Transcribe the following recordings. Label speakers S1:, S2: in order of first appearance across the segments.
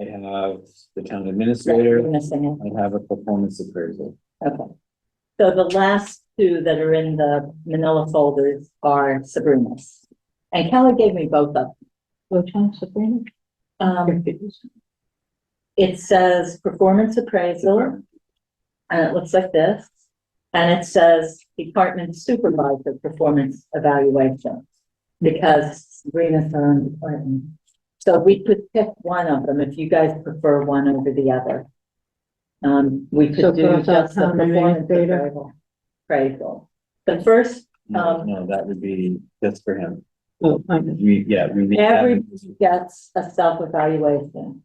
S1: I have the town
S2: You're
S1: administrator,
S2: missing
S1: I have a performance appraisal.
S2: it, okay. So the last two that are in the manila folders are Sabrina's. And Kelly gave me both of
S3: Which one, Sabrina?
S2: them. Um, it says performance appraisal, and it looks like this. And it says department supervisor performance evaluation, because Sabrina's her own department. So we could pick one of them if you guys prefer one over the other. Um, we
S3: So
S2: could do
S3: cross out
S2: just the
S3: town
S2: performance
S3: administrator.
S2: appraisal. Appraisal. The first,
S1: No,
S2: Um,
S1: no, that would be just for him.
S3: Oh, I know.
S1: We, yeah, we. leave that
S2: every
S1: in-
S2: gets a self-evaluation.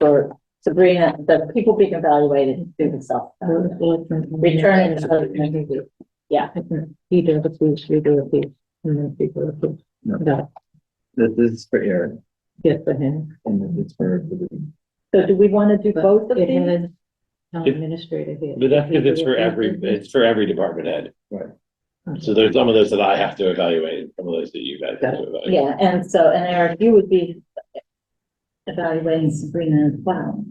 S2: For Sabrina, the people being evaluated do the self.
S3: I was looking.
S2: Return and development.
S3: I think He did a piece, we did a piece, and then he did a piece.
S1: No.
S3: That,
S1: This is for Eric
S3: yes, for him.
S1: and this is for.
S2: So do we want to do
S3: But
S2: both of
S3: It
S2: these?
S3: has town
S4: If-
S3: administrator here.
S4: But that's because it's for every, it's for every department head. So there's some of those that I have to evaluate, and some of those that you guys have to evaluate.
S2: Yeah, and so, and Eric, you would be evaluating Sabrina as well.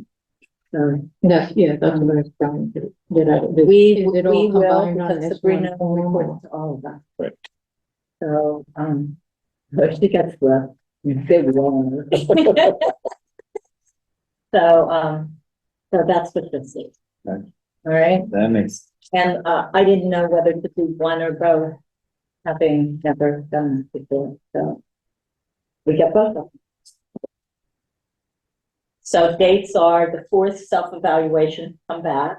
S2: So
S3: That's, yeah, that's what I was trying to, did I? did-
S2: we,
S3: is
S2: we
S3: it
S2: will,
S3: all combined on
S2: because
S3: this
S2: Sabrina
S3: one?
S2: reports to all of us.
S4: Right.
S2: So, um, so she gets the big one. So, um, so that's what this is. All
S1: Okay.
S2: right,
S1: That makes,
S2: and, uh, I didn't know whether to do one or both, having never done this before, so. We get both of them. So dates are the fourth self-evaluation come back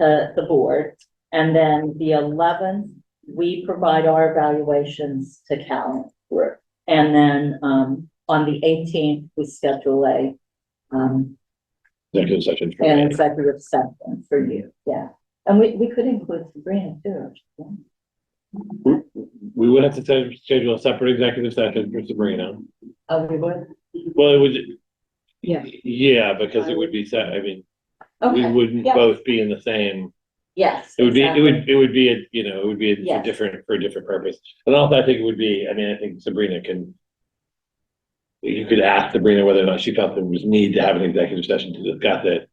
S2: to the board, and then the eleventh, we provide our evaluations to Cal. And then, um, on the eighteenth, we schedule a, um,
S4: Executive session. for
S2: and
S4: me.
S2: executive session for you, yeah. And we, we could include Sabrina too. if you want.
S4: We would have to sch- schedule a separate executive session for Sabrina.
S2: Oh, we would?
S4: Well, it would.
S3: Yeah.
S4: Yeah, because it would be, se- I mean, we
S2: Okay,
S4: wouldn't
S2: yeah.
S4: both be in the same,
S2: yes.
S4: it would be, it
S2: exactly.
S4: would, it would be, a you know, it would be a
S2: Yes.
S4: different, for a different purpose. And also I think it would be, I mean, I think Sabrina can. You could ask Sabrina whether or not she felt there was need to have an executive session to discuss it.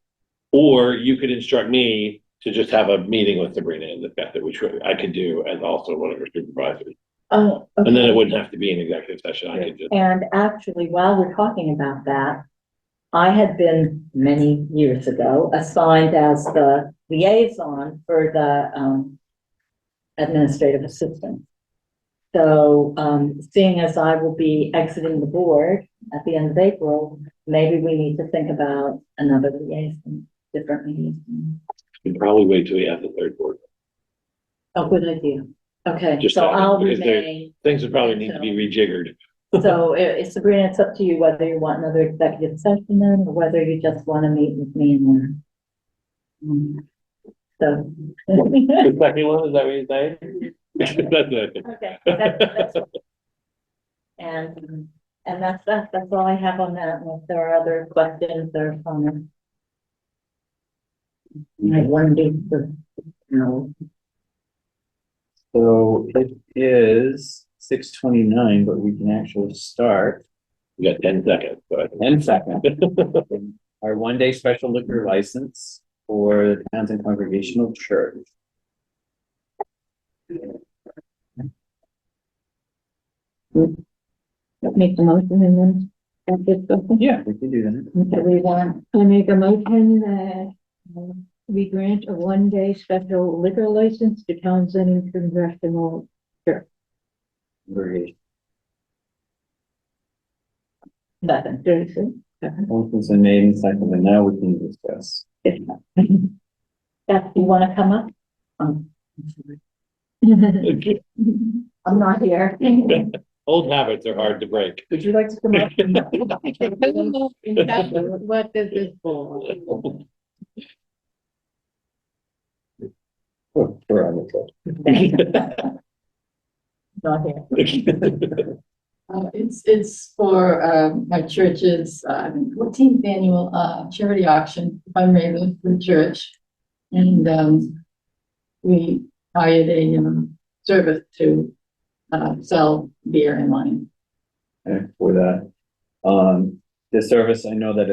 S4: Or you could instruct me to just have a meeting with Sabrina and discuss it, which I could do as also one of her supervisors.
S2: Oh,
S4: And then it
S2: okay.
S4: wouldn't have to be an executive session. I could just.
S2: And actually, while we're talking about that, I had been many years ago assigned as the liaison for the, um, administrative assistant. So, um, seeing as I will be exiting the board at the end of April, maybe we need to think about another liaison, different liaison.
S4: You'd probably wait till we have the third board.
S2: Oh, good idea. Okay,
S4: Just
S2: so
S4: that,
S2: I'll
S4: because there-
S2: remain.
S4: Things would probably need to be rejiggered.
S2: So eh, Sabrina, it's up to you whether you want another executive session then, or whether you just want to meet with me and then. So.
S4: The second one, is that what you're saying? That's what I think.
S2: Okay, that- that's all. And, and that's, that's, that's all I have on that, unless there are other questions or comments. I wondered, you know,
S1: so it is six twenty-nine, but we can actually start
S4: You got ten seconds, so I think.
S1: in second. Our one-day special liquor license for the Townsend Congregational Church.
S3: Make the motion and then, that gets something.
S1: Yeah, we can do that.
S3: Okay.
S2: do we want,
S3: I make a motion that um, we grant a one-day special liquor license to Townsend Congressional.
S1: Congregation.
S2: nothing.
S3: Citizen.
S1: Motion's been made and seconded, and now we can discuss.
S2: Beth, you want to come up? Um, I'm not here.
S4: Old habits are hard to break.
S1: Would you like to come up?
S3: What is this for?
S1: Oh, we're on the clock.
S2: Not here.
S5: Uh, it's, it's for, um, my church's, uh, fourteenth annual, uh, charity auction fundraiser for the church. And, um, we hired a, um, service to, uh, sell beer and wine.
S1: Okay, For that, um, the service, I know that